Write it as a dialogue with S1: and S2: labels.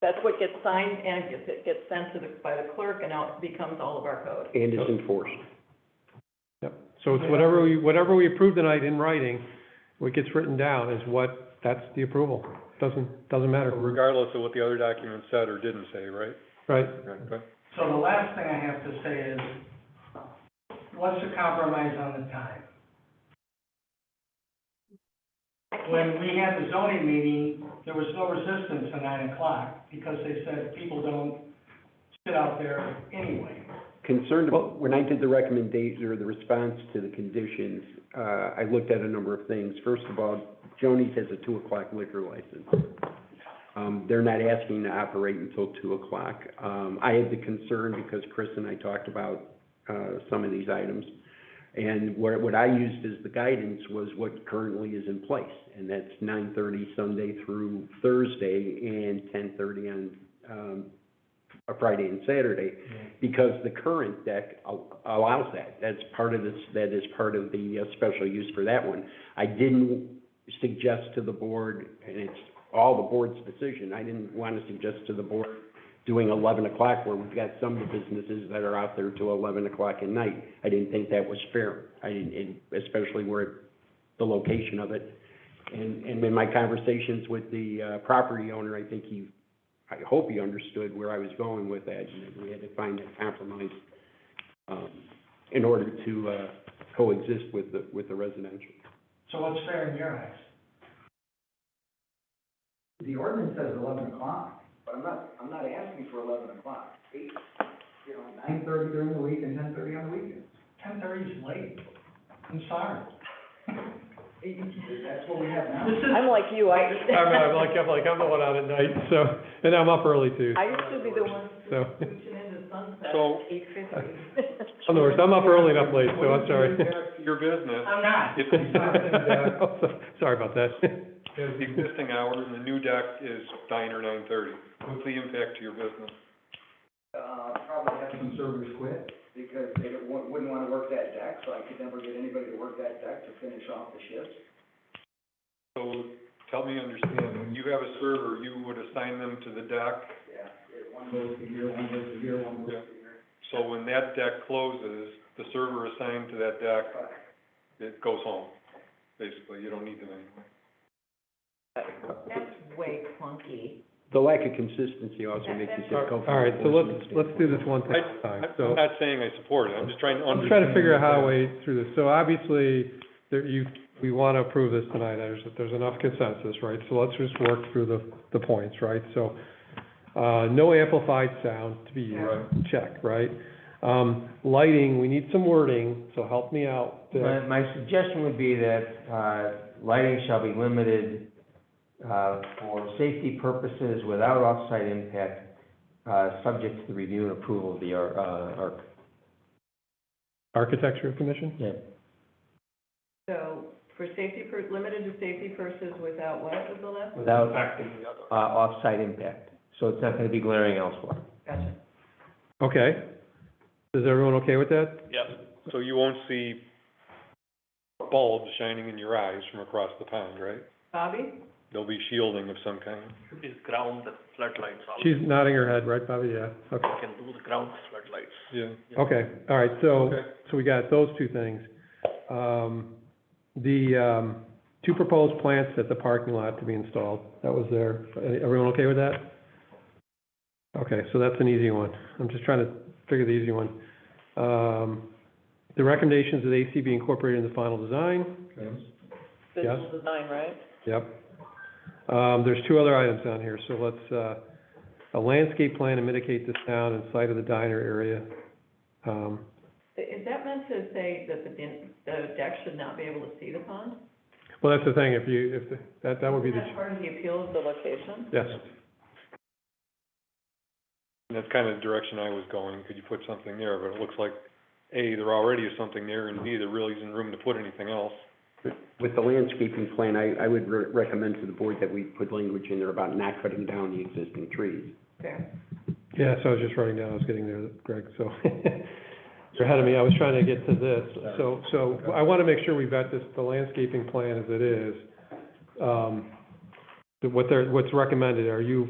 S1: That's what gets signed and gets, it gets sent to the, by the clerk and out becomes all of our code.
S2: and it's enforced.
S3: So it's whatever we, whatever we approve tonight in writing, what gets written down is what, that's the approval. Doesn't, doesn't matter,
S4: regardless of what the other document said or didn't say, right?
S3: right?
S4: Okay.
S5: So the last thing I have to say is, what's the compromise on the time? When we had the zoning meeting, there was no resistance at nine o'clock, because they said people don't sit out there anyway.
S2: Concerned, about- when I did the recommendation or the response to the conditions, uh, I looked at a number of things. First of all, Joni's has a two o'clock liquor license. Um, they're not asking to operate until two o'clock. Um, I had the concern because Chris and I talked about, uh, some of these items. And what, what I used as the guidance was what currently is in place, and that's nine thirty Sunday through Thursday and ten thirty on, um, a Friday and Saturday because the current deck al- allows that. That's part of this, that is part of the uh, special use for that one. I didn't suggest to the board, and it's all the board's decision, I didn't want to suggest to the board doing eleven o'clock where we've got some of the businesses that are out there till eleven o'clock at night. I didn't think that was fair. I didn't, and especially where the location of it. And, and in my conversations with the, uh, property owner, I think he I hope you understood where I was going with that, and that we had to find a compromise, um, in order to, uh, coexist with the, with the residential.
S5: So what's fair in your eyes?
S6: The ordinance says eleven o'clock, but I'm not, I'm not asking for eleven o'clock. Eight, you know, nine thirty during the week and ten thirty on the weekends.
S5: Ten thirty is late, I'm sorry.
S6: That's what we have now.
S5: This is,
S1: I'm like you, I.
S3: I'm, I'm like, I'm like, I'm the one out at night, so, and I'm up early too,
S1: I used to be the one
S3: so.
S1: reaching into sunset
S4: So-
S1: at eight fifty.
S3: I'm the worst, I'm up early and up late, so I'm sorry.
S4: Your business,
S5: I'm not.
S4: if
S3: Sorry about that.
S4: the existing hours and the new deck is nine or nine thirty, what's the impact to your business?
S6: Uh, probably have some servers quit because they don't- wou- wouldn't wanna work that deck, so I could never get anybody to work that deck to finish off the shifts.
S4: So, tell me, understand, when you have a server, you would assign them to the deck,
S6: Yeah, it- one goes a year, one goes a year, one goes a year.
S4: so when that deck closes, the server assigned to that deck, it goes home, basically, you don't need them anymore.
S3: uh,
S1: That's way clunky.
S2: The lack of consistency also makes it difficult.
S3: All right, so let's, let's do this one thing at a time,
S4: I,
S3: so.
S4: I'm not saying I support it, I'm just trying to
S3: I'm
S4: understand.
S3: trying to figure out how to way through this. So obviously, there, you, we want to approve this tonight. There's, there's enough consensus, right? So let's just work through the, the points, right? So, uh, no amplified sound to be used, check, right? Um, lighting, we need some wording, so help me out.
S7: My, my suggestion would be that, uh, lighting shall be limited, uh, for safety purposes without off-site impact, uh, subject to the review and approval of the, ar- uh, arc.
S3: Architecture Commission?
S7: Yeah.
S1: So for safety, pur- limited to safety purposes without what was the last?
S7: Without, uh, off-site impact, so it's not gonna be glaring elsewhere.
S1: Gotcha.
S3: Okay. Is everyone okay with that?
S4: So you won't see bulbs shining in your eyes from across the pond, right?
S1: Bobby?
S4: There'll be shielding of some kind.
S8: is ground floodlights also.
S3: She's nodding her head, right, Bobby? Yeah, okay.
S8: You can do the ground floodlights.
S4: Yeah.
S3: Okay, all right, so,
S4: Okay.
S3: so we got those two things. Um, the, um, two proposed plants at the parking lot to be installed, that was there. Everyone okay with that? Okay, so that's an easy one. I'm just trying to figure the easy one. Um, the recommendations of the AC be incorporated in the final design,
S1: Visual design, right?
S3: yep. Um, there's two other items down here, so let's, uh, a landscape plan to mitigate the sound and sight of the diner area. Um,
S1: Is that meant to say that the, din- the deck should not be able to see the pond?
S3: Well, that's the thing, if you, if, the- that, that would be
S1: Is
S3: the,
S1: that part of the appeal of the location?
S3: yes.
S4: And that's kind of the direction I was going, could you put something there, but it looks like, A, there already is something there, and B, there really isn't room to put anything else.
S2: With the landscaping plan, I, I would re- recommend to the board that we put language in there about not cutting down the existing trees.
S1: Fair.
S3: Yeah, so I was just writing down, I was getting there, Greg, so. You're ahead of me, I was trying to get to this. So, so I want to make sure we've got this, the landscaping plan as it is. Um, what they're, what's recommended, are you